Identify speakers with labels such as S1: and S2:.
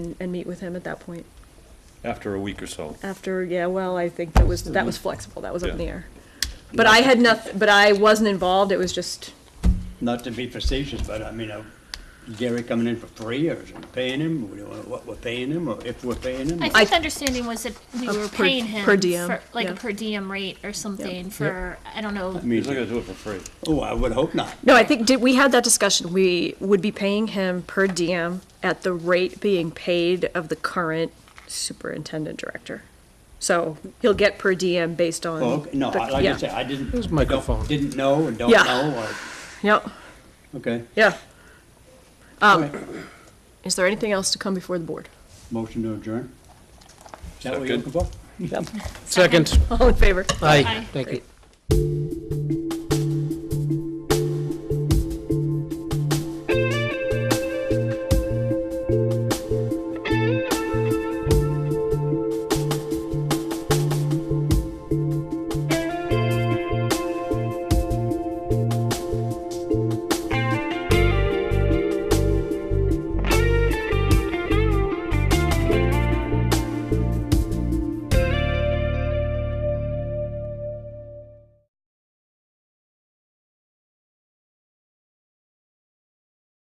S1: and- and meet with him at that point.
S2: after a week or so.
S1: After, yeah, well, I think that was, that was flexible, that was up in the
S2: Yeah.
S1: air. But I had nothing, but I wasn't involved, it was just,
S3: Not to be facetious, but I mean, uh, Gary coming in for free, or is it paying him, We don't know what we're paying him, or if we're paying him?
S4: I
S1: I-
S4: think the understanding was that we
S1: A
S4: were
S1: per-
S4: paying him
S1: per diem,
S4: for, like
S1: yeah.
S4: a per diem rate or something for I don't know.
S3: I
S2: He's not
S3: mean,
S2: gonna do it for free.
S3: oh, I would hope not.
S1: no, I think, did, we had that discussion, we would be paying him per diem at the rate being paid of the current superintendent director. So he'll get per diem based on.
S3: Oh, okay. No,
S1: the-
S3: I- like I
S1: Mm. yeah.
S3: say, I didn't,
S5: His
S3: don't-
S5: microphone.
S3: didn't know, and don't
S1: Yeah.
S3: know,
S1: Yep,
S3: or, okay.
S1: yeah. Um,
S3: All right.
S1: Is there anything else to come before the board?
S3: Motion to adjourn. Is that what you're
S2: Second.
S3: looking for?
S5: Second.
S1: All in favor?
S5: Aye.
S4: Aye.
S5: Thank you.